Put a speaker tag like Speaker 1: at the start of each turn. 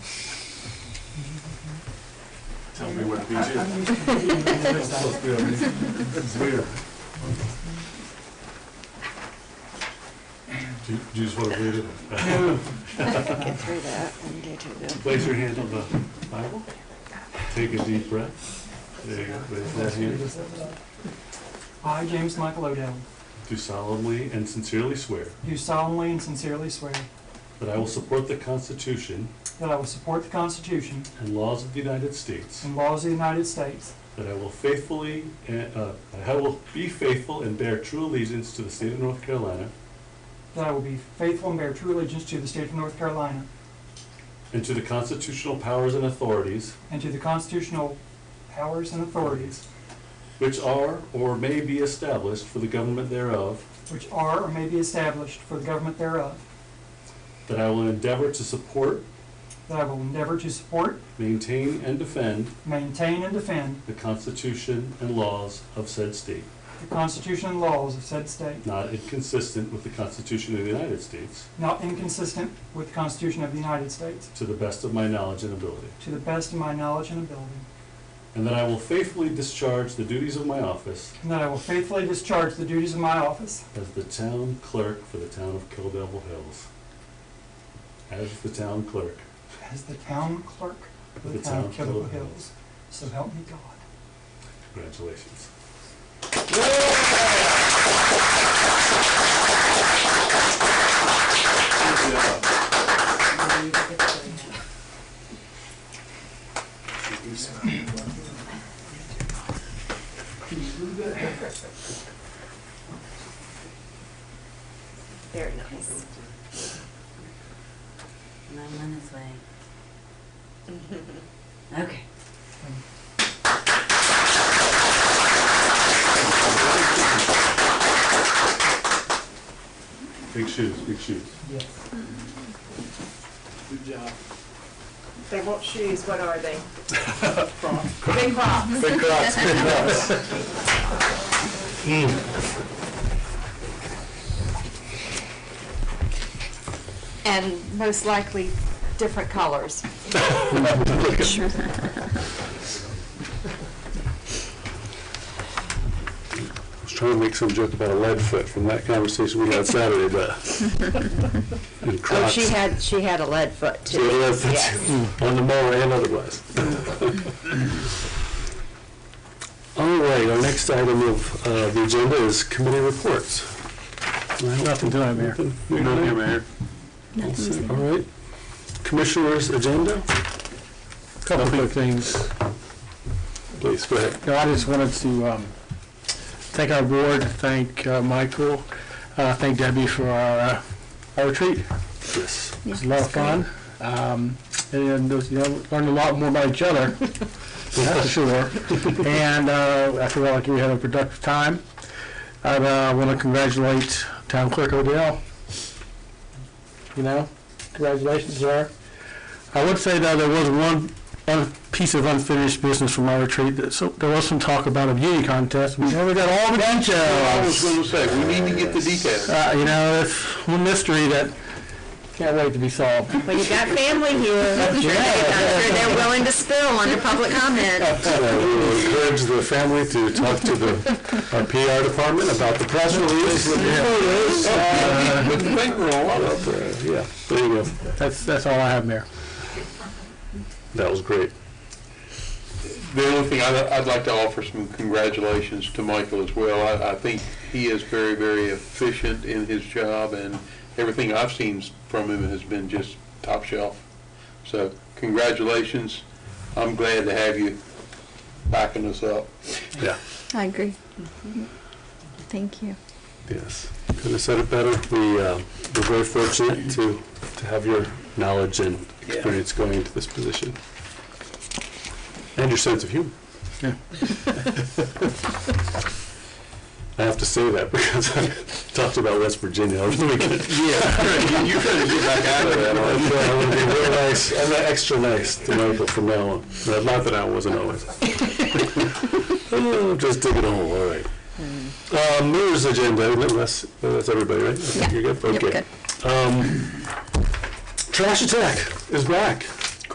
Speaker 1: Tell me what these is. Supposed to be on these. It's weird. Do you- do you just want to read it?
Speaker 2: Get through that and do too good.
Speaker 1: Place your hand on the Bible. Take a deep breath. There you go. Raise that hand.
Speaker 3: I, James Michael Odell,
Speaker 1: Do solemnly and sincerely swear
Speaker 3: do solemnly and sincerely swear
Speaker 1: that I will support the Constitution
Speaker 3: that I will support the Constitution
Speaker 1: and laws of the United States,
Speaker 3: and laws of the United States,
Speaker 1: that I will faithfully, uh, that I will be faithful and bear true allegiance to the state of North Carolina
Speaker 3: that I will be faithful and bear true allegiance to the state of North Carolina
Speaker 1: and to the constitutional powers and authorities
Speaker 3: and to the constitutional powers and authorities
Speaker 1: which are or may be established for the government thereof,
Speaker 3: which are or may be established for the government thereof,
Speaker 1: that I will endeavor to support,
Speaker 3: that I will endeavor to support,
Speaker 1: maintain, and defend
Speaker 3: maintain, and defend
Speaker 1: the Constitution and laws of said state,
Speaker 3: the Constitution and laws of said state,
Speaker 1: not inconsistent with the Constitution of the United States,
Speaker 3: not inconsistent with the Constitution of the United States,
Speaker 1: to the best of my knowledge and ability,
Speaker 3: to the best of my knowledge and ability,
Speaker 1: and that I will faithfully discharge the duties of my office
Speaker 3: and that I will faithfully discharge the duties of my office
Speaker 1: as the town clerk for the town of Kill Devil Hills. As the town clerk
Speaker 3: As the town clerk
Speaker 1: for
Speaker 3: of the town of Killable Hills. So help me God.
Speaker 1: Congratulations.
Speaker 2: Very nice.
Speaker 4: And I'm on his way. Okay.
Speaker 1: Big shoes, big shoes.
Speaker 3: Yes.
Speaker 5: They want shoes, what are they?
Speaker 4: Big box.
Speaker 1: Big cross, big cross.
Speaker 5: Hmm.
Speaker 2: And most likely different colors.
Speaker 1: I was trying to make some joke about a lead foot from that conversation we had Saturday, but. And
Speaker 6: Oh,
Speaker 1: Crocs.
Speaker 6: she had, she had a lead foot
Speaker 1: So
Speaker 6: too.
Speaker 1: it is- On the mower and otherwise. All right, our next item of uh, the agenda is committee reports. Nothing tonight, Mayor. Nothing here, Mayor. All right. Commissioners' agenda?
Speaker 7: Couple quick things.
Speaker 1: Please, go ahead.
Speaker 7: No, I just wanted to um, thank our board, thank uh, Michael, uh, thank Debbie for our uh, our retreat.
Speaker 1: Yes.
Speaker 7: It was a lot of fun. Um, And, you know, learned a lot more about each other, that's for sure. And uh, I feel like we had a productive time. I want to congratulate Town Clerk Odell. You know, congratulations, sir. I would say though, there was one un- piece of unfinished business from my retreat. that- So There was some talk about a beauty contest. We never got all the details.
Speaker 1: to say, we need to get the details.
Speaker 7: Uh, You know, it's one mystery that can't wait to be solved.
Speaker 6: Well, you got family here. I'm sure they- I'm sure they're willing to spill under public comment.
Speaker 1: Uh, We will encourage the family to talk to the, our PR department about the press release. With the bankroll. Yeah, there you go.
Speaker 7: That's, that's all I have, Mayor.
Speaker 1: That was great.
Speaker 8: The only thing, I'd, I'd like to offer some congratulations to Michael as well. I, I think he is very, very efficient in his job, and everything I've seen from him has been just top shelf. So congratulations. I'm glad to have you backing us up.
Speaker 1: Yeah,
Speaker 9: I agree. Mm-hmm. Thank you.
Speaker 1: yes. Couldn't have said it better. We, uh, we're very fortunate to, to have your knowledge and
Speaker 8: Yeah.
Speaker 1: experience going into this position. And your sense of humor.
Speaker 7: Yeah.
Speaker 1: I have to say that because I talked about West Virginia over the weekend.
Speaker 8: Yeah, you're trying to get back
Speaker 1: I want to be real nice, and extra nice to Michael from now on. But Not that I wasn't always. Oh, Just dig it all, all right. Uh, Mayor's agenda, no, that's, that's everybody, right? I think
Speaker 9: Yeah.
Speaker 1: You're good?
Speaker 9: Yep,
Speaker 1: Okay.
Speaker 9: good.
Speaker 1: Um, Trash Attack is back.